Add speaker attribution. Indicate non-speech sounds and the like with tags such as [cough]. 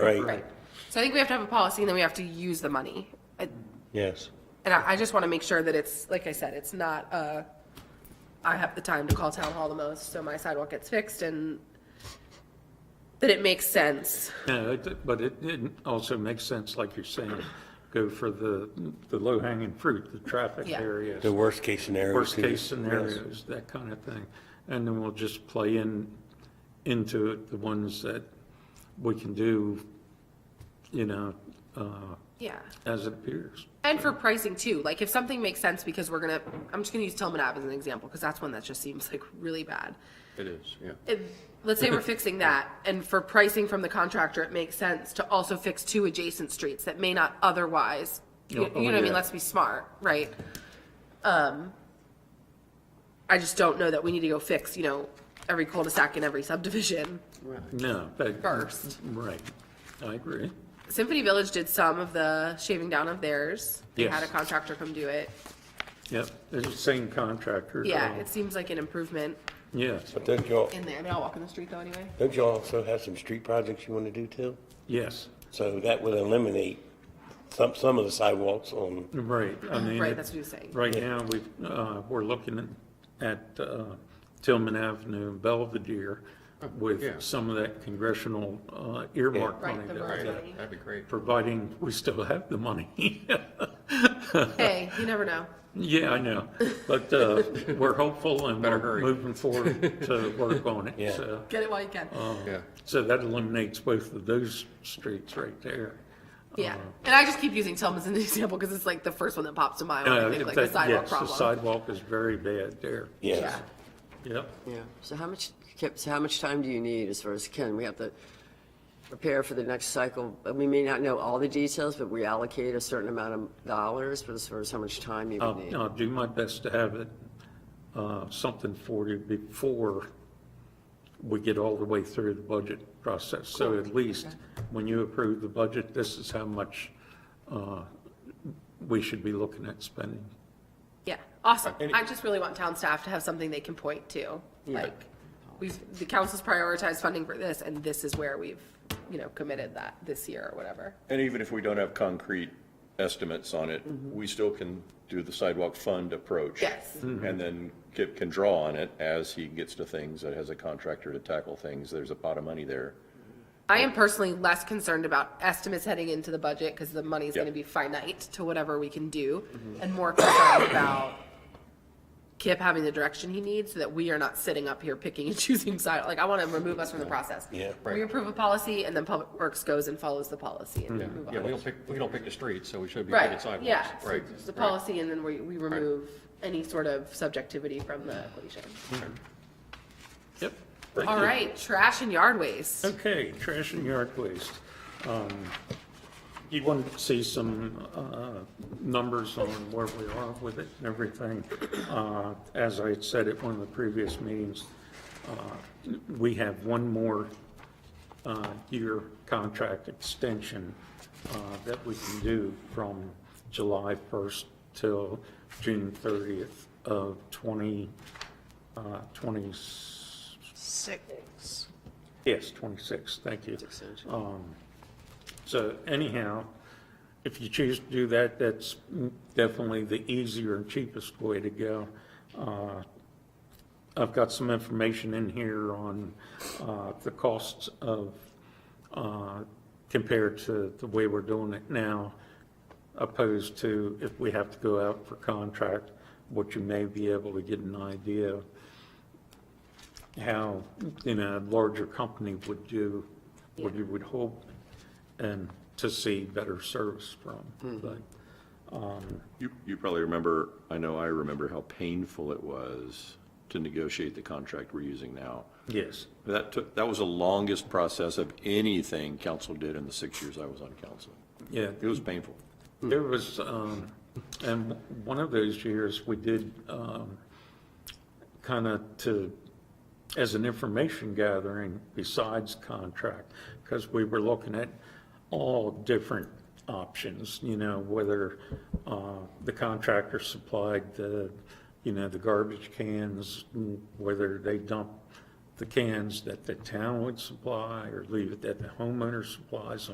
Speaker 1: Right,
Speaker 2: So I think we have to have a policy and then we have to use the money. I-
Speaker 1: yes.
Speaker 2: And I, I just want to make sure that it's, like I said, it's not, uh, I have the time to call town hall the most, so my sidewalk gets fixed and that it makes sense.
Speaker 3: Yeah, it- but it, it also makes sense, like you're saying, go for the, the low-hanging fruit, the traffic
Speaker 2: Yeah.
Speaker 3: areas,
Speaker 1: The worst-case scenario. too.
Speaker 3: worst-case
Speaker 1: Yes.
Speaker 3: scenarios, that kind of thing. And then we'll just play in, into it, the ones that we can do, you know, uh,
Speaker 2: Yeah.
Speaker 3: as it appears.
Speaker 2: And for pricing too, like if something makes sense because we're gonna, I'm just gonna use Tillman Ave as an example, because that's one that just seems like really bad.
Speaker 4: It is, yeah.
Speaker 2: If, let's say we're fixing that, and for pricing from the contractor, it makes sense to also fix two adjacent streets that may not otherwise,
Speaker 4: Oh,
Speaker 2: you you know what I mean,
Speaker 3: yeah.
Speaker 2: let's be smart, right? Um, I just don't know that we need to go fix, you know, every cul-de-sac in every subdivision
Speaker 3: No, but.
Speaker 2: first.
Speaker 3: Right, I agree.
Speaker 2: Symphony Village did some of the shaving down of theirs, they had a
Speaker 3: Yes.
Speaker 2: contractor come do it,
Speaker 3: Yep, it's the same contractor.
Speaker 2: yeah,
Speaker 3: uh,
Speaker 2: it seems like an improvement
Speaker 3: Yes,
Speaker 1: But don't y'all,
Speaker 2: in there, I mean, I'll walk in the street though anyway.
Speaker 1: don't y'all also have some street projects you want to do too?
Speaker 3: yes,
Speaker 1: So that would eliminate some, some of the sidewalks on,
Speaker 3: right,
Speaker 2: [clears throat]
Speaker 3: I mean.
Speaker 2: Right,
Speaker 3: it-
Speaker 2: that's what you're saying.
Speaker 3: Right now, we've, uh, we're looking at uh, Tillman Avenue and Belvedere
Speaker 4: yeah.
Speaker 3: with some of that congressional uh, earmark
Speaker 2: Yeah. Right,
Speaker 3: money.
Speaker 2: the
Speaker 3: that-
Speaker 2: road
Speaker 3: that-
Speaker 2: money.
Speaker 4: That'd be great.
Speaker 3: Providing we still have the money. [laughs]
Speaker 2: Hey, you never know,
Speaker 3: Yeah, I know, but uh, we're hopeful and we're
Speaker 4: hurry.
Speaker 3: moving forward to work on it.
Speaker 1: Yeah.
Speaker 3: So-
Speaker 2: get it while you can.
Speaker 4: Yeah.
Speaker 3: So that eliminates both of those streets right there.
Speaker 2: Yeah, and I just keep using Tillman as an [laughs] example because it's like the first one that pops to mind when I
Speaker 3: Uh,
Speaker 2: think like
Speaker 3: that-
Speaker 2: the sidewalk
Speaker 3: yes, The
Speaker 2: problem.
Speaker 3: sidewalk is very bad there.
Speaker 2: Yeah,
Speaker 1: yes.
Speaker 3: Yep,
Speaker 5: Yeah, so how much, so how much time do you need as far as, Ken, we have to prepare for the next cycle? Uh, We may not know all the details, but we allocate a certain amount of dollars, but as far as how much time you would
Speaker 3: I'll,
Speaker 5: need?
Speaker 3: I'll do my best to have it, uh, something for you before we get all the way through the budget process. So at least when you approve the budget, this is how much, uh, we should be looking at spending.
Speaker 2: yeah, awesome. I just really want town staff to have something they can point to, like, we've, the council's prioritized funding for this, and this is where we've, you know, committed that this year or whatever.
Speaker 6: And even if we don't have concrete estimates on it, we still can do the sidewalk fund approach.
Speaker 2: Yes.
Speaker 6: And then Kip can draw on it as he gets to things, that has a contractor to tackle things, there's a pot of money there.
Speaker 2: I am personally less concerned about estimates heading into the budget because the money's
Speaker 6: Yeah.
Speaker 2: gonna be finite to whatever we can do, and more concerned [coughs] about Kip having the direction he needs, so that we are not sitting up here picking and [laughs] choosing side, like, I wanna remove us from the process.
Speaker 1: Yeah.
Speaker 2: We approve a policy, and then Public Works goes and follows the policy and we move
Speaker 4: Yeah, we
Speaker 2: on.
Speaker 4: don't pick, we don't pick the streets, so we should be picking
Speaker 2: Right,
Speaker 4: sidewalks.
Speaker 2: yeah, so
Speaker 4: Right.
Speaker 2: it's the
Speaker 4: right.
Speaker 2: policy, and then we, we remove any sort of subjectivity from the equation.
Speaker 3: Yep.
Speaker 2: All right, trash and yard waste.
Speaker 3: Okay, trash and yard waste. Um, You want to see some uh, numbers on where we are with it and everything. Uh, As I had said at one of the previous meetings, uh, we have one more uh, year contract extension uh, that we can do from July 1st till June 30th of 20, uh, 20,
Speaker 7: Six.
Speaker 3: Yes, 26, thank you. Um, So anyhow, if you choose to do that, that's definitely the easier and cheapest way to go. Uh, I've got some information in here on uh, the costs of, uh, compared to the way we're doing it now, opposed to if we have to go out for contract, what you may be able to get an idea of how, in a larger company would do, what you would hope, and to see better service from. But,
Speaker 6: You, you probably remember, I know I remember how painful it was to negotiate the contract we're using now.
Speaker 3: Yes,
Speaker 6: That took, that was the longest process of anything council did in the six years I was on council.
Speaker 3: yeah,
Speaker 6: It was painful.
Speaker 3: there was, um, and one of those years, we did, um, kind of to, as an information gathering besides contract, because we were looking at all different options, you know, whether uh, the contractor supplied the, you know, the garbage cans, whether they dumped the cans that the town would supply or leave it that the homeowner supplies them.